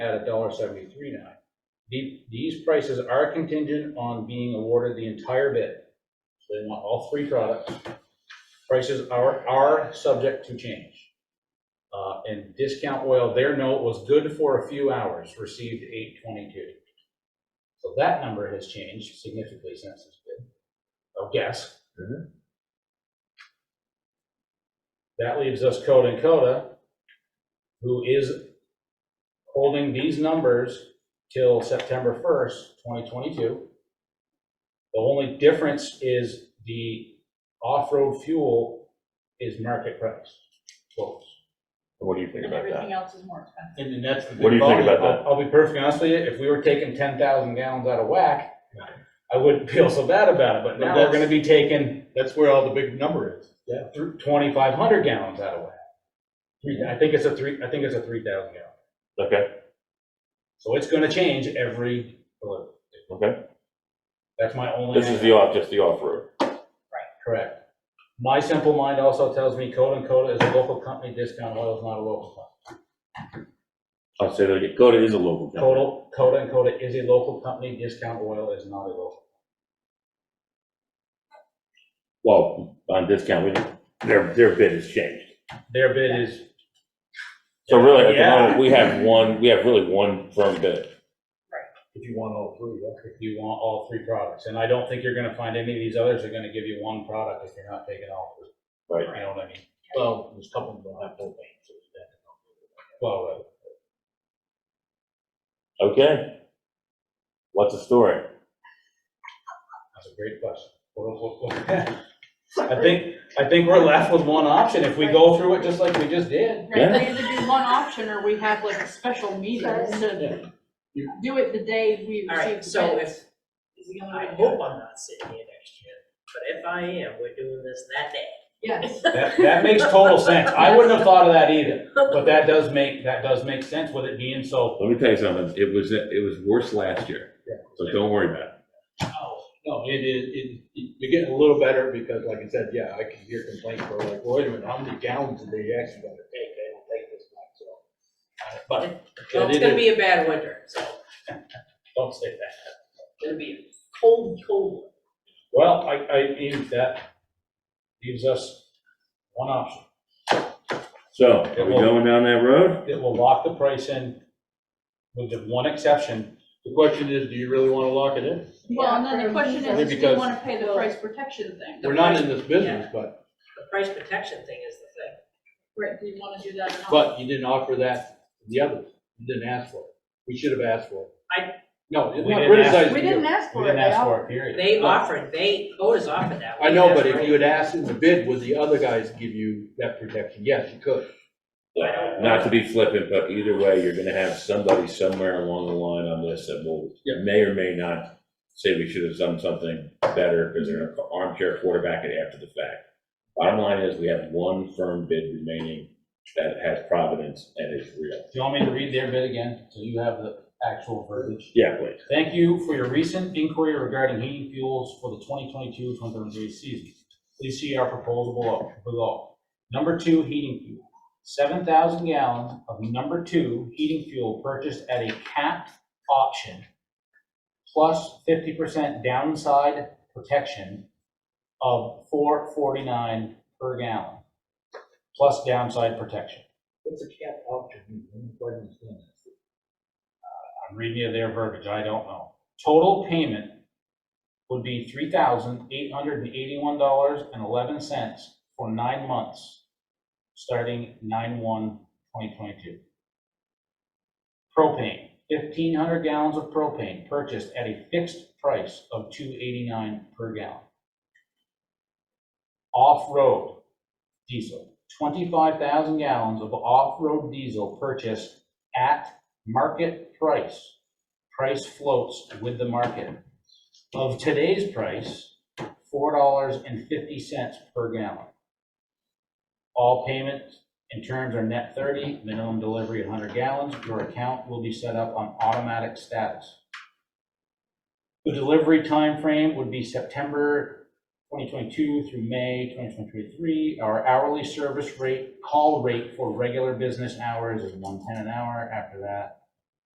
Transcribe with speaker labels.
Speaker 1: at a dollar seventy-three nine. The, these prices are contingent on being awarded the entire bid. So they want all three products. Prices are, are subject to change. Uh, and discount oil, their note was good for a few hours, received eight twenty-two. So that number has changed significantly since this bid. Oh, guess. That leaves us Coda and Coda, who is holding these numbers till September 1st, 2022. The only difference is the off-road fuel is market price, quotes.
Speaker 2: What do you think
Speaker 3: And
Speaker 2: about that?
Speaker 3: everything else is more expensive.
Speaker 1: And then that's the.
Speaker 2: What do you think about
Speaker 1: big volume. I'll I'll be perfectly honest with you, if we were taking 10,000 gallons out of whack, I wouldn't feel so bad about it, but now we're gonna be taking
Speaker 4: That's where all the big number is.
Speaker 1: thr- 2,500 gallons out of whack. Three- I think it's a three, I think it's a 3,000 gallon.
Speaker 2: Okay,
Speaker 1: So it's gonna change every delivery.
Speaker 2: okay.
Speaker 1: That's my only.
Speaker 2: This is the off, just the off-road.
Speaker 1: Correct. My simple mind also tells me Coda and Coda is a local company, Discount Oil is not a local company.
Speaker 2: I'll say that again. Coda is a local company.
Speaker 1: Coda, Coda and Coda is a local company, Discount Oil is not a local.
Speaker 2: Well, on discount, we, their, their bid has changed.
Speaker 1: Their bid is,
Speaker 2: So really, at the
Speaker 1: Yeah.
Speaker 2: moment, we have one, we have really one firm bid.
Speaker 4: If you want all three, yeah.
Speaker 1: if you want all three products, and I don't think you're gonna find any of these others are gonna give you one product if you're not taking all. three.
Speaker 2: Right.
Speaker 1: You know what I mean?
Speaker 4: Well, there's a couple of them that have both names. so it's that.
Speaker 1: Well, uh,
Speaker 2: Okay. What's the story?
Speaker 1: that's a great question. What- what- what- I think, I think we're left with one option, if we go through it just like we just did.
Speaker 3: Right, we either do one option or we have like a special meeting to do it the day we
Speaker 5: All
Speaker 3: receive
Speaker 5: right,
Speaker 3: the
Speaker 5: so
Speaker 3: bids.
Speaker 5: if,
Speaker 3: Is the only
Speaker 5: I
Speaker 3: way to do it.
Speaker 5: hope I'm not sitting here next year, but if I am, we're doing this that day.
Speaker 3: Yes,
Speaker 1: That, that makes total sense. I wouldn't have thought of that either, but that does make, that does make sense with it being so.
Speaker 2: Let me tell you something, it was, it was worse last year, so don't worry about it.
Speaker 4: No, it is, it, it- you're getting a little better because like I said, yeah, I can hear complaints where like, wait a minute, how many gallons did they actually gotta take? They don't take this much, so. Uh, But.
Speaker 5: Well, it's
Speaker 4: it
Speaker 5: gonna
Speaker 4: is-
Speaker 5: be a bad winter, so
Speaker 1: Don't say that.
Speaker 5: it's gonna be a cold, cold. one.
Speaker 1: Well, I, I, think that leaves us one option.
Speaker 2: So, are we going down that road?
Speaker 1: It will lock the price in with the one exception.
Speaker 4: The question is, do you really wanna lock it in?
Speaker 3: well, and then the question
Speaker 4: Only
Speaker 3: is, do you
Speaker 4: because-
Speaker 3: wanna pay the price protection thing?
Speaker 4: We're not in this business, but,
Speaker 5: The price protection thing is the thing.
Speaker 3: Right, do you wanna do that or not?
Speaker 4: but you didn't offer that to the others. You didn't ask for it. We should have asked for it.
Speaker 5: I-
Speaker 4: No, it's
Speaker 1: We
Speaker 4: not
Speaker 1: didn't ask-
Speaker 4: criticizing
Speaker 3: We
Speaker 4: you.
Speaker 3: didn't
Speaker 1: We
Speaker 3: ask for it,
Speaker 1: didn't
Speaker 3: they
Speaker 1: ask
Speaker 3: all,
Speaker 1: for it, period.
Speaker 5: They offered, they, Coda's offered that.
Speaker 4: I
Speaker 5: We
Speaker 4: know,
Speaker 5: asked
Speaker 4: but
Speaker 5: for
Speaker 4: if
Speaker 5: it.
Speaker 4: you had asked in the bid, would the other guys give you that protection? Yes, you could.
Speaker 2: Not to be flippant, but either way, you're gonna have somebody somewhere along the line on this that will,
Speaker 4: Yeah.
Speaker 2: may or may not say we should have done something better, because they're gonna armchair quarterback it after the fact. Bottom line is, we have one firm bid remaining that has providence and is real.
Speaker 1: Do you want me to read their bid again, so you have the actual verbiage?
Speaker 2: Yeah, please.
Speaker 1: Thank you for your recent inquiry regarding heating fuels for the 2022-2023 season. Please see our proposal below- below. Number two, heating fuel. 7,000 gallons of number two heating fuel purchased at a capped option, plus 50% downside protection of 449 per gallon, plus downside protection.
Speaker 4: What's a cap option? I don't quite understand that.
Speaker 1: I'm reading you their verbiage, I don't know. Total payment would be three thousand eight hundred and eighty-one dollars and eleven cents for nine months, starting nine one twenty twenty-two. Propane, fifteen hundred gallons of propane purchased at a fixed price of two eighty-nine per gallon. Off-road diesel, twenty-five thousand gallons of off-road diesel purchased at market price. Price floats with the market. Of today's price, four dollars and fifty cents per gallon. All payments and terms are net thirty, minimum delivery hundred gallons. Your account will be set up on automatic status. The delivery time frame would be September twenty twenty-two through May twenty twenty-three. Our hourly service rate, call rate for regular business hours is one ten an hour. After that,